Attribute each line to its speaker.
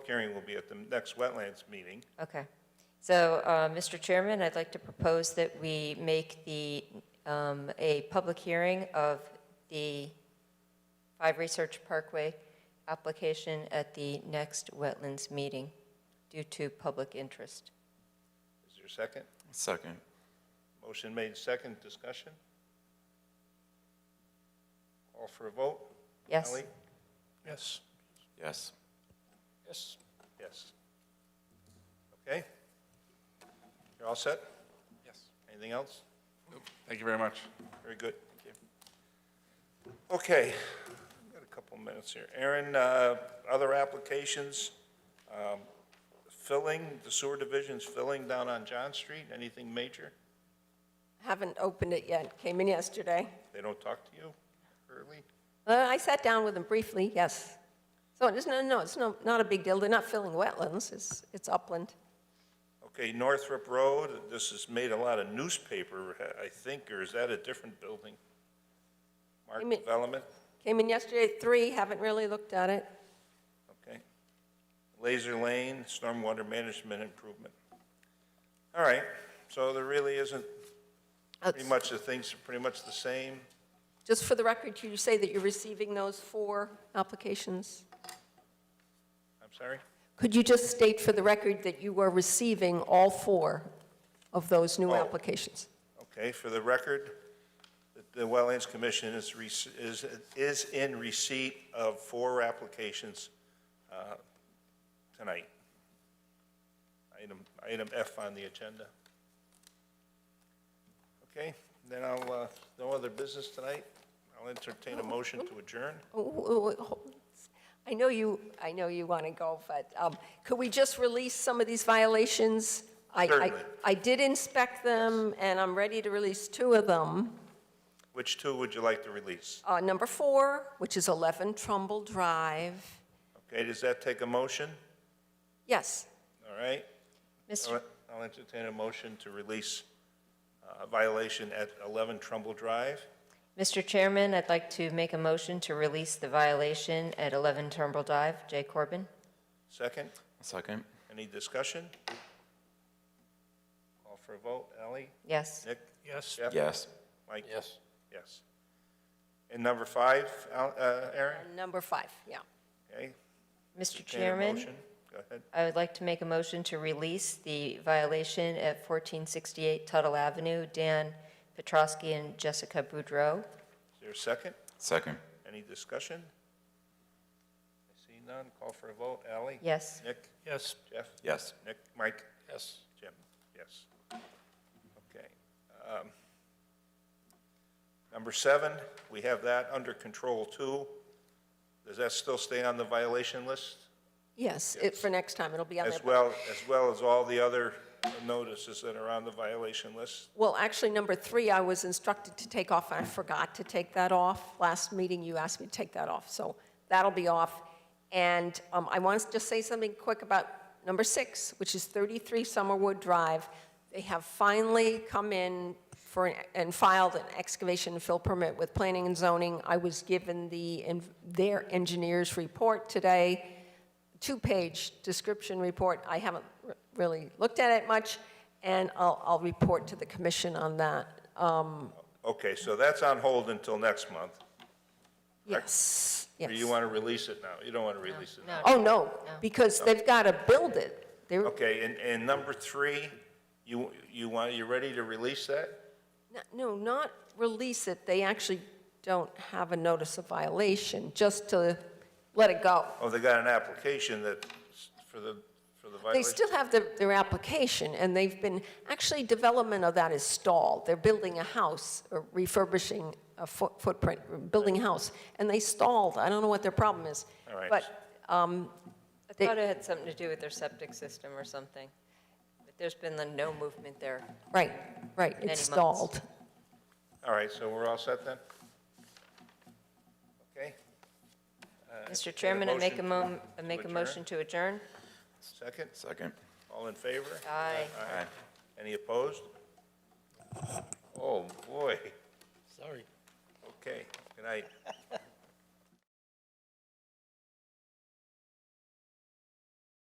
Speaker 1: hearing will be at the next wetlands meeting.
Speaker 2: Okay. So, uh, Mr. Chairman, I'd like to propose that we make the, um, a public hearing of the Five Research Parkway application at the next wetlands meeting due to public interest.
Speaker 1: Is there a second?
Speaker 3: Second.
Speaker 1: Motion made, second, discussion? Call for a vote?
Speaker 2: Yes?
Speaker 1: Ellie?
Speaker 4: Yes.
Speaker 3: Yes.
Speaker 4: Yes.
Speaker 1: Yes. Okay? You're all set?
Speaker 4: Yes.
Speaker 1: Anything else?
Speaker 4: Thank you very much.
Speaker 1: Very good, thank you. Okay, I've got a couple minutes here. Aaron, uh, other applications, um, filling, the sewer division's filling down on John Street, anything major?
Speaker 5: Haven't opened it yet, came in yesterday.
Speaker 1: They don't talk to you early?
Speaker 5: Uh, I sat down with them briefly, yes. So it's, no, no, it's no, not a big deal, they're not filling wetlands, it's, it's upland.
Speaker 1: Okay, Northrop Road, this has made a lot of newspaper, I think, or is that a different building? Mark
Speaker 5: I mean-
Speaker 1: Development,
Speaker 5: Came in yesterday at three, haven't really looked at it.
Speaker 1: okay. Laser Lane, Stormwater Management Improvement. All right, so there really isn't, pretty much the things are pretty much the same.
Speaker 5: Just for the record, you say that you're receiving those four applications?
Speaker 1: I'm sorry?
Speaker 5: Could you just state for the record that you are receiving all four of those new
Speaker 1: Oh.
Speaker 5: applications?
Speaker 1: Okay, for the record, the- the Wetlands Commission is, rec- is, is in receipt of four applications uh, tonight. Item, item F on the agenda. Okay, then I'll, uh, no other business tonight. I'll entertain a motion to adjourn.
Speaker 5: Oh, oh, oh, I know you, I know you want to go, but um, could we just release some of these violations? I- I-
Speaker 1: Certainly.
Speaker 5: I did inspect them, and I'm ready to release two of them.
Speaker 1: Which two would you like to release?
Speaker 5: Uh, Number four, which is 11 Trumbull Drive.
Speaker 1: Okay, does that take a motion?
Speaker 5: Yes,
Speaker 1: All right?
Speaker 2: Mr.
Speaker 1: I'll- I'll entertain a motion to release uh, violation at 11 Trumbull Drive.
Speaker 2: Mr. Chairman, I'd like to make a motion to release the violation at 11 Turnbull Drive. Jay Corbin?
Speaker 1: Second,
Speaker 3: Second.
Speaker 1: any discussion? Call for a vote. Ally?
Speaker 2: Yes?
Speaker 1: Nick?
Speaker 4: Yes.
Speaker 1: Jeff?
Speaker 3: Yes.
Speaker 1: Mike?
Speaker 4: Yes.
Speaker 1: Yes. And number five, Al- uh, Aaron?
Speaker 5: and number five, yeah.
Speaker 1: Okay.
Speaker 2: Mr.
Speaker 1: entertain a
Speaker 2: Chairman?
Speaker 1: motion. Go ahead.
Speaker 2: I would like to make a motion to release the violation at 1468 Tuttle Avenue, Dan Petrowski and Jessica Boudreau.
Speaker 1: Is there a second?
Speaker 3: Second.
Speaker 1: Any discussion? I see none. Call for a vote. Ally?
Speaker 2: Yes.
Speaker 1: Nick?
Speaker 4: Yes.
Speaker 1: Jeff?
Speaker 3: Yes.
Speaker 1: Nick? Mike?
Speaker 4: Yes.
Speaker 1: Jim? Yes. Okay. Um, Number seven, we have that under control too. Does that still stay on the violation list?
Speaker 5: Yes, it- for next time, it'll be on there.
Speaker 1: As well, as well as all the other notices that are on the violation list?
Speaker 5: Well, actually, number three, I was instructed to take off, and I forgot to take that off. Last meeting, you asked me to take that off, so that'll be off. And um, I want to just say something quick about number six, which is 33 Summerwood Drive. They have finally come in for, an- and filed an excavation and fill permit with planning and zoning. I was given the, en- their engineer's report today two-page description report. I haven't r- really looked at it much, and I'll, I'll report to the commission on that. Um,
Speaker 1: Okay, so that's on hold until next month.
Speaker 5: Yes, yes.
Speaker 1: Or you want to release it now? You don't want to release it now?
Speaker 5: Oh, no, because they've got to build it. They're,
Speaker 1: Okay, and, and number three, you, you want, you ready to release that?
Speaker 5: n- no, not release it. They actually don't have a notice of violation, just to let it go.
Speaker 1: Oh, they got an application that, for the, for the
Speaker 5: They
Speaker 1: violation?
Speaker 5: still have their, their application, and they've been, actually, development of that is stalled. They're building a house, or refurbishing a foot- footprint, building a house, and they stalled. I don't know what their problem is.
Speaker 1: All right.
Speaker 5: But,
Speaker 2: I thought it had something to do with their septic system or something, but there's been no movement there.
Speaker 5: right, right,
Speaker 2: Many
Speaker 5: it's
Speaker 2: months.
Speaker 5: stalled.
Speaker 1: All right, so we're all set then? Okay,
Speaker 2: Mr. Chairman, I make a mo, I make a
Speaker 1: adjourn?
Speaker 2: motion to adjourn.
Speaker 1: second,
Speaker 3: Second.
Speaker 1: all in favor?
Speaker 2: Aye.
Speaker 3: Aye.
Speaker 1: Any opposed? Oh, boy,
Speaker 4: Sorry.
Speaker 1: okay, good night.